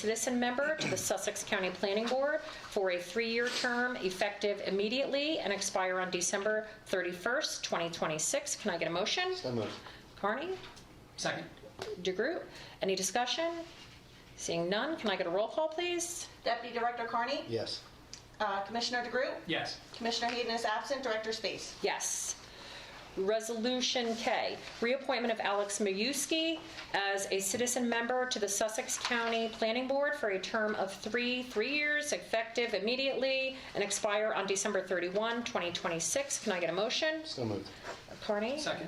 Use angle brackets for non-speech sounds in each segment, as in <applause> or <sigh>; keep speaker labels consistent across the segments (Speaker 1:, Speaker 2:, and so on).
Speaker 1: citizen member to the Sussex County Planning Board for a three-year term effective immediately and expire on December 31st, 2026. Can I get a motion?
Speaker 2: So moved.
Speaker 1: Carney,
Speaker 3: Second.
Speaker 1: DeGroot, any discussion? Seeing none, can I get a roll call, please?
Speaker 4: Deputy Director Carney?
Speaker 2: Yes.
Speaker 4: Uh, Commissioner DeGroot?
Speaker 3: Yes.
Speaker 4: Commissioner Hayden is absent. Director Space?
Speaker 1: Yes. Resolution K, reappointment of Alex Mayuski as a citizen member to the Sussex County Planning Board for a term of three, three years, effective immediately, and expire on December 31, 2026. Can I get a motion?
Speaker 2: So moved.
Speaker 1: Carney?
Speaker 3: Second.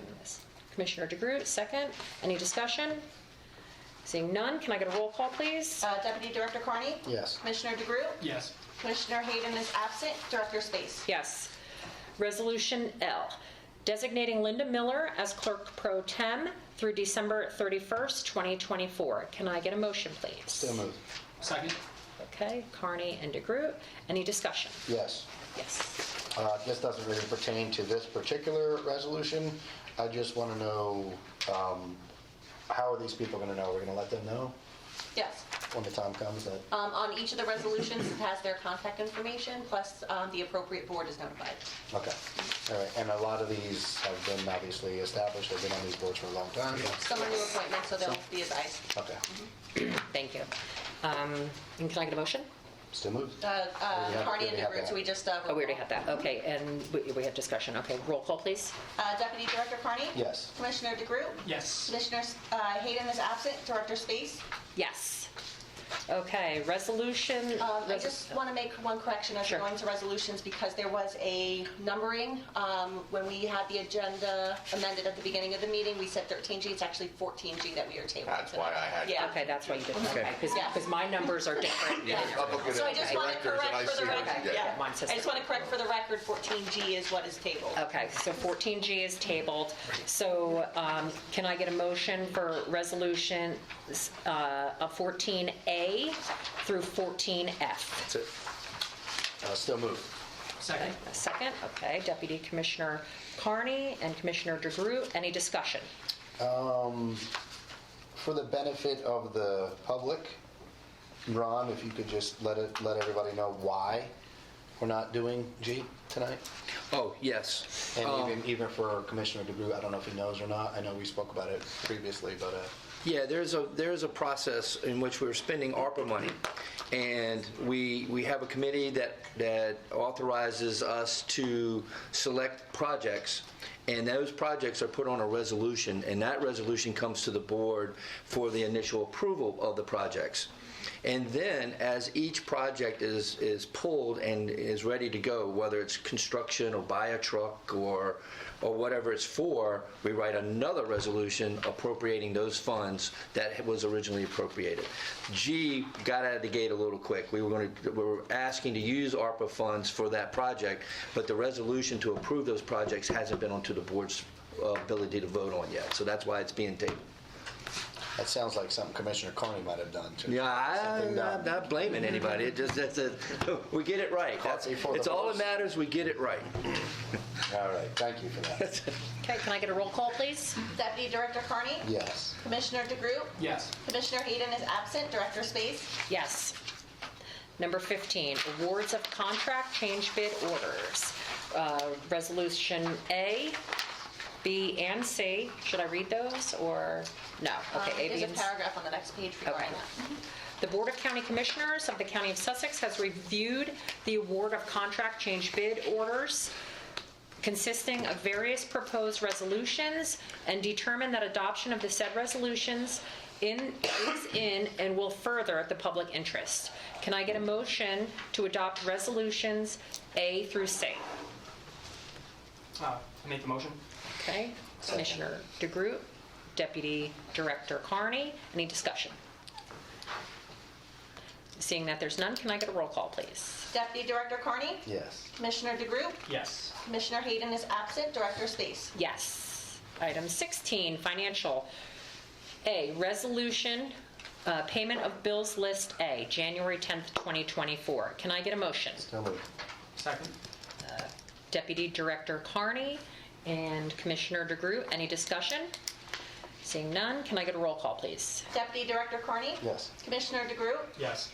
Speaker 1: Commissioner DeGroot, second. Any discussion? Seeing none, can I get a roll call, please?
Speaker 4: Uh, Deputy Director Carney?
Speaker 2: Yes.
Speaker 4: Commissioner DeGroot?
Speaker 3: Yes.
Speaker 4: Commissioner Hayden is absent. Director Space?
Speaker 1: Yes. Resolution L, designating Linda Miller as clerk pro tem through December 31st, 2024. Can I get a motion, please?
Speaker 2: So moved.
Speaker 3: Second.
Speaker 1: Okay, Carney and DeGroot. Any discussion?
Speaker 2: Yes.
Speaker 1: Yes.
Speaker 2: Uh, This doesn't really pertain to this particular resolution. I just want to know, um, how are these people going to know? We're going to let them know
Speaker 4: Yes.
Speaker 2: when the time comes that,
Speaker 4: Um, On each of the resolutions, it has their contact information, plus um, the appropriate board is notified.
Speaker 2: okay. All right, and a lot of these have been obviously established, they've been on these boards for a long time.
Speaker 4: Some are new appointments, so they'll be advised.
Speaker 2: Okay.
Speaker 1: Thank you. Um, And can I get a motion?
Speaker 2: Still moved?
Speaker 4: Uh,
Speaker 2: Oh, we
Speaker 4: uh,
Speaker 2: have-
Speaker 4: Carney
Speaker 2: we
Speaker 4: and
Speaker 2: have
Speaker 4: DeGroot,
Speaker 2: that.
Speaker 4: so we just... uh,
Speaker 1: Oh, we already had that. Okay, and we we had discussion. Okay, roll call, please.
Speaker 4: Uh, Deputy Director Carney?
Speaker 2: Yes.
Speaker 4: Commissioner DeGroot?
Speaker 3: Yes.
Speaker 4: Commissioner uh, Hayden is absent. Director Space?
Speaker 1: Yes. Okay, resolution.
Speaker 4: Um, I just want to make one correction as
Speaker 1: Sure.
Speaker 4: we're going to resolutions, because there was a numbering. um, When we had the agenda amended at the beginning of the meeting, we said 13G, it's actually 14G that we are tabling.
Speaker 5: That's
Speaker 4: tonight.
Speaker 5: why I had-
Speaker 4: Yeah.
Speaker 1: Okay, that's why you did,
Speaker 5: Okay.
Speaker 1: okay,
Speaker 4: Yes.
Speaker 1: because my numbers are different. than
Speaker 5: Yeah, I'm looking
Speaker 4: So I
Speaker 5: at
Speaker 4: just
Speaker 5: the
Speaker 4: want to
Speaker 5: directors and I
Speaker 4: correct for
Speaker 5: see
Speaker 4: the
Speaker 5: what
Speaker 4: record,
Speaker 5: you
Speaker 4: yeah.
Speaker 5: did.
Speaker 1: Mine says Oh.
Speaker 4: I just want to correct for the record, 14G is what is tabled.
Speaker 1: Okay, so 14G is tabled. So um, can I get a motion for resolution uh, of 14A through 14F?
Speaker 2: That's it. Uh, Still moved.
Speaker 3: Second.
Speaker 1: A second, okay. Deputy Commissioner Carney and Commissioner DeGroot, any discussion?
Speaker 2: For the benefit of the public, Ron, if you could just let it, let everybody know why we're not doing G tonight?
Speaker 6: Oh, yes.
Speaker 2: And
Speaker 6: Um,
Speaker 2: even, even for Commissioner DeGroot, I don't know if he knows or not. I know we spoke about it previously, but uh,
Speaker 6: Yeah, there's a, there's a process in which we're spending ARPA money. And we, we have a committee that, that authorizes us to select projects. And those projects are put on a resolution, and that resolution comes to the board for the initial approval of the projects. And then, as each project is, is pulled and is ready to go, whether it's construction or buy a truck or, or whatever it's for, we write another resolution appropriating those funds that was originally appropriated. G got out of the gate a little quick. We were going to, we were asking to use ARPA funds for that project, but the resolution to approve those projects hasn't been onto the board's uh, ability to vote on yet. So that's why it's being tabled.
Speaker 2: that sounds like something Commissioner Carney might have done too.
Speaker 6: Yeah, I,
Speaker 2: Something
Speaker 6: I'm
Speaker 2: done.
Speaker 6: not blaming anybody. It just that's a, <laughs> we get it right. That's,
Speaker 2: before the
Speaker 6: it's all
Speaker 2: horse.
Speaker 6: that matters. We get it right.
Speaker 2: All right, thank you for that.
Speaker 1: Okay, can I get a roll call, please?
Speaker 4: Deputy Director Carney?
Speaker 2: Yes.
Speaker 4: Commissioner DeGroot?
Speaker 3: Yes.
Speaker 4: Commissioner Hayden is absent. Director Space?
Speaker 1: Yes. Number 15, awards of contract change bid orders. Uh, Resolution A, B, and C. Should I read those or, no?
Speaker 4: Um,
Speaker 1: Okay, A, B,
Speaker 4: There's a
Speaker 1: and C.
Speaker 4: paragraph on the next page regarding that.
Speaker 1: The Board of County Commissioners of the County of Sussex has reviewed the award of contract change bid orders consisting of various proposed resolutions and determined that adoption of the said resolutions in, is in and will further the public interest. Can I get a motion to adopt resolutions A through C?
Speaker 3: Uh, I make the motion?
Speaker 1: Okay, Commissioner DeGroot, Deputy Director Carney, any discussion? Seeing that there's none, can I get a roll call, please?
Speaker 4: Deputy Director Carney?
Speaker 2: Yes.
Speaker 4: Commissioner DeGroot?
Speaker 3: Yes.
Speaker 4: Commissioner Hayden is absent. Director Space?
Speaker 1: Yes. Item 16, financial. A, resolution, uh, payment of bills list A, January 10th, 2024. Can I get a motion?
Speaker 2: So moved.
Speaker 3: Second.
Speaker 1: Deputy Director Carney and Commissioner DeGroot, any discussion? Seeing none, can I get a roll call, please?
Speaker 4: Deputy Director Carney?
Speaker 2: Yes.
Speaker 4: Commissioner DeGroot?
Speaker 3: Yes.